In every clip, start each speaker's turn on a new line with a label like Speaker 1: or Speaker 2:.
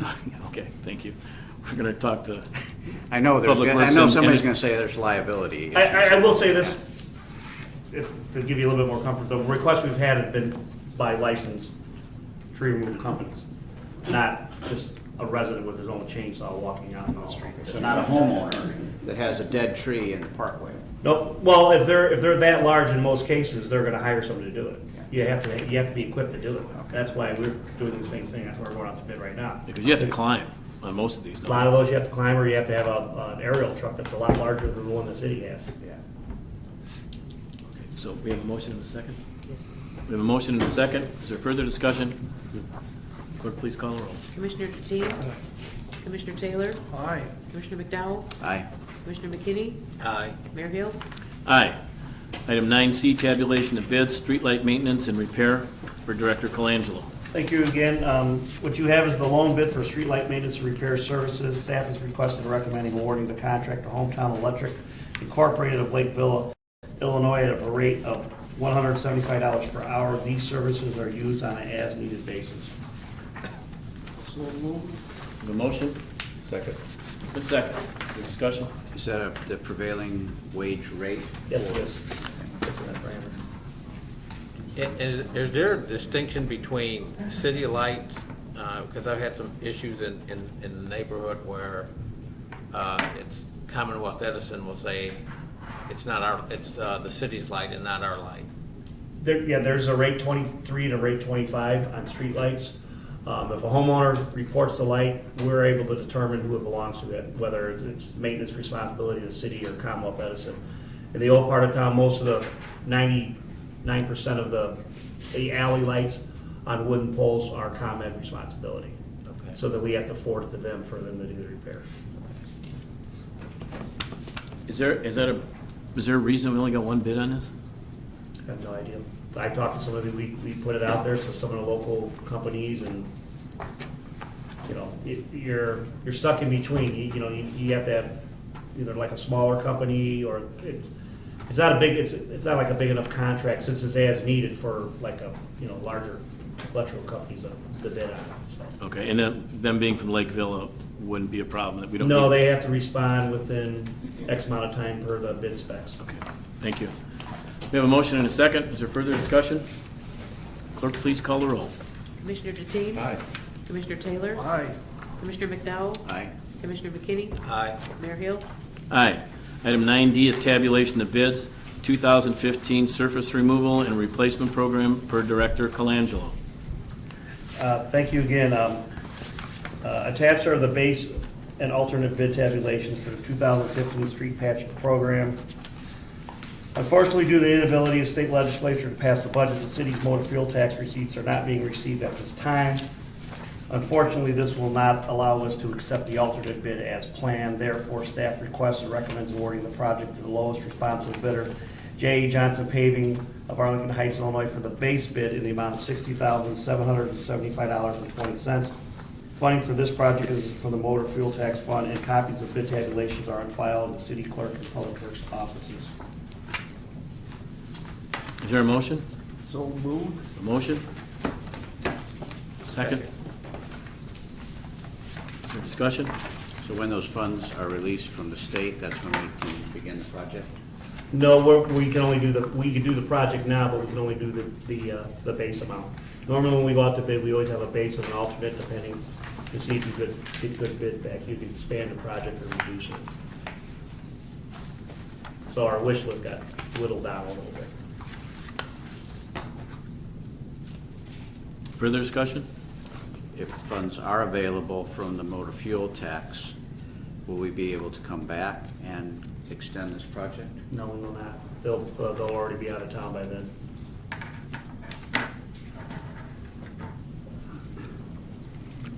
Speaker 1: Okay, thank you. We're going to talk to,
Speaker 2: I know there's,
Speaker 1: Public
Speaker 2: I
Speaker 1: Works
Speaker 2: know
Speaker 1: and-
Speaker 2: somebody's
Speaker 1: and-
Speaker 2: gonna say there's liability.
Speaker 3: I, I, I will say this, if, to give you a little bit more comfort, the requests we've had have been by licensed tree removal companies, not just a resident with his own chainsaw walking out on the street.
Speaker 2: So not a homeowner that has a dead tree in the parkway.
Speaker 3: No, well, if they're, if they're that large in most cases, they're gonna hire somebody to do it. You have to, you have to be equipped to do it. That's why we're doing the same thing, that's why we're going out to bid right now.
Speaker 1: because you have to climb on most of these. don't
Speaker 3: A
Speaker 1: you?
Speaker 3: lot of those you have to climb, or you have to have a, an aerial truck that's a lot larger than the one the city has.
Speaker 1: Okay, So we have a motion and a second? Yes. We have a motion and a second. Is there further discussion? Clerk, please call the roll.
Speaker 4: Commissioner DeTeen? Commissioner Taylor? Aye. Commissioner McDowell?
Speaker 2: Aye.
Speaker 4: Commissioner McKinney? Aye. Mayor Hill?
Speaker 1: Aye. Item nine C, tabulation of bids, streetlight maintenance and repair for Director Colangelo.
Speaker 3: Thank you again. Um, What you have is the loan bid for streetlight maintenance and repair services. Staff is requested and recommending awarding the contract to Hometown Electric Incorporated of Lakeville, Illinois, at a rate of $175 per hour. These services are used on an as-needed basis.
Speaker 1: We have a motion?
Speaker 2: Second.
Speaker 1: A second. Is there discussion?
Speaker 2: Is that a- the prevailing wage rate?
Speaker 3: Yes, it is.
Speaker 5: I- Is, is there a distinction between city lights, because I've had some issues in, in, in the neighborhood where uh, it's Commonwealth Edison will say, it's not our, it's uh, the city's light and not our light.
Speaker 3: There, yeah, there's a rate 23 and a rate 25 on streetlights. Um, If a homeowner reports the light, we're able to determine who it belongs to, that- whether it's maintenance responsibility of the city or Commonwealth Edison. In the old part of town, most of the 99% of the the alley lights on wooden poles are ComEd responsibility.
Speaker 5: Okay.
Speaker 3: So that we have to forward it to them for them to do the repair.
Speaker 1: Is there, is that a, is there a reason we only got one bid on this?
Speaker 3: I have no idea. I talked to somebody, we, we put it out there, so some of the local companies and, you know, y- you're, you're stuck in between. You, you know, you, you have to have either like a smaller company or it's, it's not a big, it's, it's not like a big enough contract since it's as needed for like a, you know, larger electrical companies to, to bid on, so.
Speaker 1: Okay, and then, them being from Lakeville uh, wouldn't be a problem, that we don't.
Speaker 3: No,
Speaker 1: need-
Speaker 3: they have to respond within X amount of time per the bid specs.
Speaker 1: Okay, thank you. We have a motion and a second. Is there further discussion? Clerk, please call the roll.
Speaker 4: Commissioner DeTeen? Aye. Commissioner Taylor? Aye. Commissioner McDowell?
Speaker 2: Aye.
Speaker 4: Commissioner McKinney?
Speaker 5: Aye.
Speaker 4: Mayor Hill?
Speaker 1: Aye. Item 9D is tabulation of bids, 2015 surface removal and replacement program per Director Colangelo.
Speaker 3: Uh, Thank you again. Um, uh, Attached are the base and alternate bid tabulations for the 2015 street patch program. Unfortunately, due to the inability of state legislature to pass the budget, the city's motor fuel tax receipts are not being received at this time. Unfortunately, this will not allow us to accept the alternate bid as planned. Therefore, staff requests and recommends awarding the project to the lowest responsible bidder, J.E. Johnson Paving of Arlington Heights, Illinois, for the base bid in the amount of $60,775.20. Funding for this project is from the motor fuel tax fund, and copies of bid tabulations are on file in the city clerk and public works offices.
Speaker 1: Is there a motion? So moved. A motion? Second? Is there discussion?
Speaker 2: So when those funds are released from the state, that's when we can begin the project?
Speaker 3: No, we're- we can only do the, we can do the project now, but we can only do the, the, uh, the base amount. Normally, when we go out to bid, we always have a base and an alternate depending to see if you could, get good bid back. You can expand the project or reduce it. So our wish list got whittled down a little bit.
Speaker 1: Further discussion?
Speaker 2: If funds are available from the motor fuel tax, will we be able to come back and extend this project?
Speaker 3: No, we will not. They'll, uh, they'll already be out of town by then.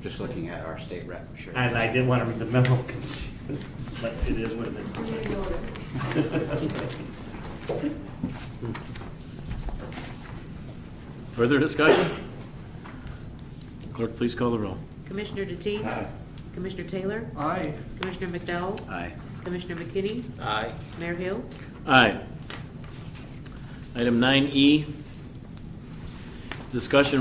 Speaker 2: Just looking at our state rep, sure.
Speaker 3: And I didn't want to read the memo, 'cause, like, it is what it is.
Speaker 1: Further discussion? Clerk, please call the roll.
Speaker 4: Commissioner DeTeen? Aye. Commissioner Taylor? Aye. Commissioner McDowell?
Speaker 2: Aye.
Speaker 4: Commissioner McKinney?
Speaker 5: Aye.
Speaker 4: Mayor Hill?
Speaker 1: Aye. Item 9E, discussion